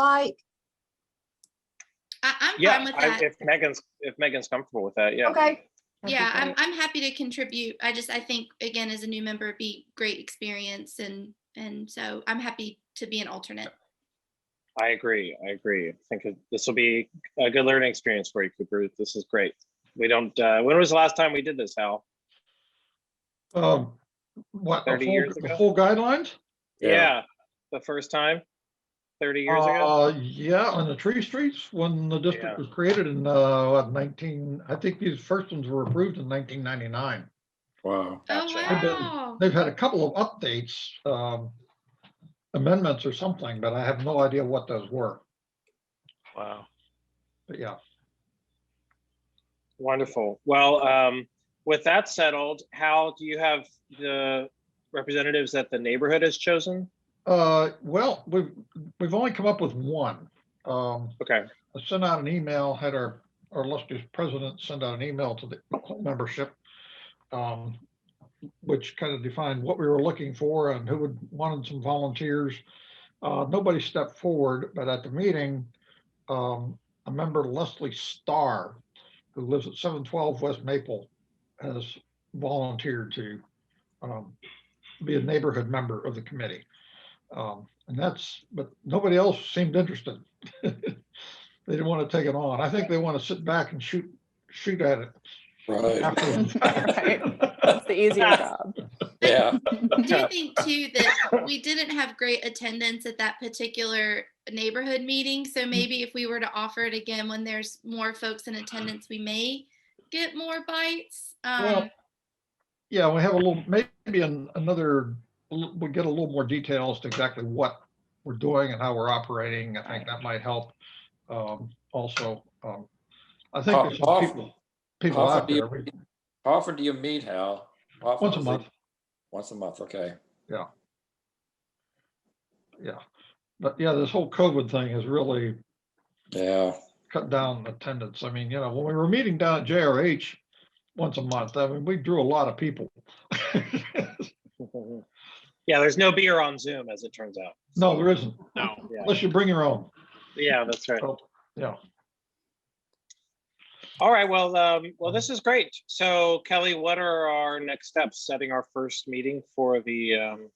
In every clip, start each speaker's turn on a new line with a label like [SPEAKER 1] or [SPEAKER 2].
[SPEAKER 1] like?
[SPEAKER 2] I, I'm fine
[SPEAKER 3] Yeah,
[SPEAKER 2] with
[SPEAKER 3] I-
[SPEAKER 2] that.
[SPEAKER 3] if Megan's, if Megan's comfortable with that, yeah.
[SPEAKER 1] Okay. That'd be
[SPEAKER 2] Yeah, I'm,
[SPEAKER 1] great.
[SPEAKER 2] I'm happy to contribute. I just, I think, again, as a new member, it'd be great experience and, and so I'm happy to be an alternate.
[SPEAKER 3] I agree, I agree. I think it- this will be a good learning experience for you, Cooper. This is great. We don't, uh, when was the last time we did this, Hal?
[SPEAKER 4] Um, what, a
[SPEAKER 3] 30
[SPEAKER 4] full,
[SPEAKER 3] years
[SPEAKER 4] a
[SPEAKER 3] ago?
[SPEAKER 4] full guidelines?
[SPEAKER 3] Yeah, the first time, thirty years ago?
[SPEAKER 4] Uh, yeah, on the tree streets, when the
[SPEAKER 3] Yeah.
[SPEAKER 4] district was created in, uh, what, nineteen, I think these first ones were approved in nineteen ninety-nine.
[SPEAKER 2] Oh,
[SPEAKER 5] Wow.
[SPEAKER 3] Gotcha.
[SPEAKER 4] I've been-
[SPEAKER 2] wow.
[SPEAKER 4] They've had a couple of updates, um, amendments or something, but I have no idea what those were,
[SPEAKER 3] Wow.
[SPEAKER 4] but yeah.
[SPEAKER 3] Wonderful. Well, um, with that settled, Hal, do you have the representatives that the neighborhood has chosen?
[SPEAKER 4] Uh, well, we've, we've only come up with one. Um,
[SPEAKER 3] Okay,
[SPEAKER 4] I sent out an email, had our, our illustrious president send out an email to the membership, um, which kind of defined what we were looking for and who would, wanted some volunteers. Uh, nobody stepped forward, but at the meeting, um, a member Leslie Starr, who lives at seven twelve West Maple, has volunteered to, um, be a neighborhood member of the committee. Um, and that's, but nobody else seemed interested. They didn't want to take it on. I think they want to sit back and shoot, shoot at it.
[SPEAKER 5] Right.
[SPEAKER 4] afterwards.
[SPEAKER 6] It's the easier job.
[SPEAKER 5] Yeah.
[SPEAKER 2] I do think too that we didn't have great attendance at that particular neighborhood meeting. So
[SPEAKER 4] Mm.
[SPEAKER 2] maybe if we were to offer it again, when there's more folks in attendance, we may get more bites.
[SPEAKER 4] Well,
[SPEAKER 2] Um,
[SPEAKER 4] Yeah, we have a little, maybe an- another, we get a little more details to exactly what we're doing and how we're operating. I think that might help. um, Also, um, I think there's some
[SPEAKER 5] Often,
[SPEAKER 4] people, people
[SPEAKER 5] often
[SPEAKER 4] out
[SPEAKER 5] do you-
[SPEAKER 4] there, we-
[SPEAKER 5] often do you meet, Hal? Often
[SPEAKER 4] once a
[SPEAKER 5] is it-
[SPEAKER 4] month,
[SPEAKER 5] Once a month, okay.
[SPEAKER 4] yeah. But yeah, this whole COVID thing has really
[SPEAKER 5] Yeah,
[SPEAKER 4] cut down attendance. I mean, you know, when we were meeting down at JRH once a month, I mean, we drew a lot of people.
[SPEAKER 3] yeah, there's no beer on Zoom, as it turns out.
[SPEAKER 4] No, there isn't,
[SPEAKER 3] No. Yeah,
[SPEAKER 4] unless you bring your own.
[SPEAKER 3] yeah, that's right.
[SPEAKER 4] So, Yeah.
[SPEAKER 3] All right, well, um,
[SPEAKER 7] Mm-hmm.
[SPEAKER 3] well, this is great. So Kelly, what are our next steps? Setting our first meeting for the, um,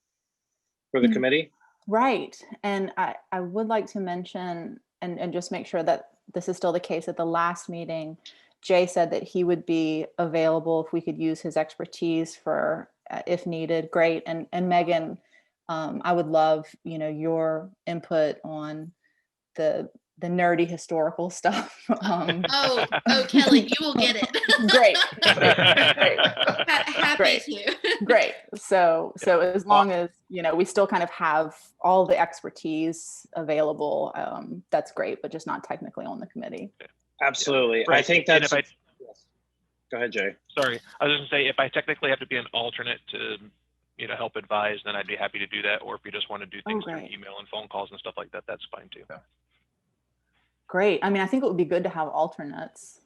[SPEAKER 3] for the
[SPEAKER 7] Mm-hmm.
[SPEAKER 6] Mhm.
[SPEAKER 3] committee?
[SPEAKER 6] Right. And I, I would like to mention and, and just make sure that this is still the case at the last meeting. Jay said that he would be available if we could use his expertise for, uh, if needed, great. And, and Megan, um, I would love, you know, your input on the, the nerdy historical stuff. Um,
[SPEAKER 2] oh, oh, Kelly, you will get it.
[SPEAKER 6] Great, great.
[SPEAKER 2] Ha- Happy
[SPEAKER 6] Great.
[SPEAKER 2] to.
[SPEAKER 6] Great. So, so as long as, you know, we still kind of have all the expertise available, um, that's great, but just not technically on the committee.
[SPEAKER 3] Absolutely. I
[SPEAKER 7] Right,
[SPEAKER 3] think
[SPEAKER 7] and
[SPEAKER 3] that's,
[SPEAKER 7] if
[SPEAKER 3] Yes. go ahead, Jay.
[SPEAKER 7] Sorry, I was gonna say, if I technically have to be an alternate to, you know, help advise, then I'd be happy to do that, or if you just want to do
[SPEAKER 6] Oh,
[SPEAKER 7] things through
[SPEAKER 6] great.
[SPEAKER 7] email and phone calls and stuff like that, that's fine too.
[SPEAKER 6] Great. I mean, I think it would be good to have alternates.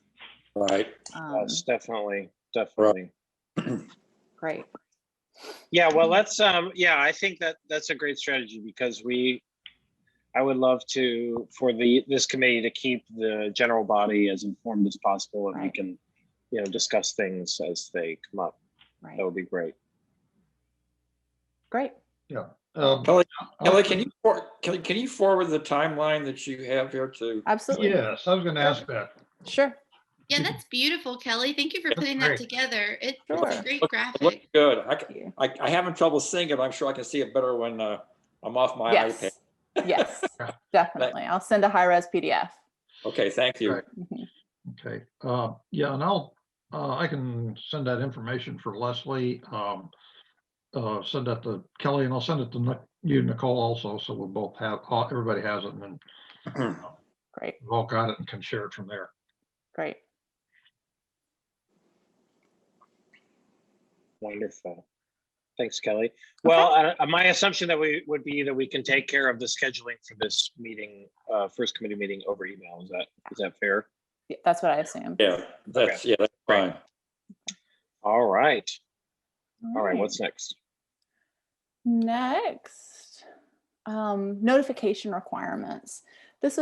[SPEAKER 5] right.
[SPEAKER 7] Uh-huh.
[SPEAKER 6] Um,
[SPEAKER 3] Yes, definitely, definitely.
[SPEAKER 6] great.
[SPEAKER 3] Yeah, well, let's, um, yeah, I think that, that's a great strategy because we, I would love to, for the, this committee to keep the general body as informed as possible and we
[SPEAKER 6] Right.
[SPEAKER 3] can, you know, discuss things as they come up.
[SPEAKER 6] Right.
[SPEAKER 3] That would be great.
[SPEAKER 6] Great.
[SPEAKER 4] Um,
[SPEAKER 5] Kelly-
[SPEAKER 4] I'll-
[SPEAKER 5] Kelly, can you, for- Kelly, can you forward the timeline that you have here to?
[SPEAKER 6] Absolutely.
[SPEAKER 4] uh, Yes, I was gonna ask that.
[SPEAKER 6] Sure.
[SPEAKER 2] Yeah, that's beautiful, Kelly. Thank you for putting that
[SPEAKER 4] great.
[SPEAKER 2] together. It- It's a
[SPEAKER 6] Sure.
[SPEAKER 2] great
[SPEAKER 5] Look- Look
[SPEAKER 2] graphic.
[SPEAKER 5] good. I,
[SPEAKER 6] Thank
[SPEAKER 5] c-
[SPEAKER 6] you.
[SPEAKER 5] I- I having trouble seeing it. I'm sure I can see it better when uh, I'm off my iPad.
[SPEAKER 6] Yes. Yes, definitely. I'll send a high res PDF.
[SPEAKER 5] Okay, thank you.
[SPEAKER 4] Right.
[SPEAKER 6] Mm-hmm.
[SPEAKER 4] Okay, uh, yeah, and I'll, uh, I can send that information for Leslie. Um, uh, send that to Kelly and I'll send it to Nic- you, Nicole also, so we'll both have, all- everybody has it and then
[SPEAKER 6] Great,
[SPEAKER 4] we've all got it and can share it from there.
[SPEAKER 6] great.
[SPEAKER 3] Wonderful. Thanks, Kelly. Well, uh, uh, my assumption that we would be that we can take care of the scheduling for this meeting, uh, first committee meeting over email. Is that, is that fair?
[SPEAKER 6] Yeah, That's what I assume.
[SPEAKER 5] Yeah, that's, yeah, that's
[SPEAKER 3] Right.
[SPEAKER 5] fine.
[SPEAKER 3] All right. All
[SPEAKER 6] Hmm.
[SPEAKER 3] right. What's next?
[SPEAKER 6] Next, um, notification requirements.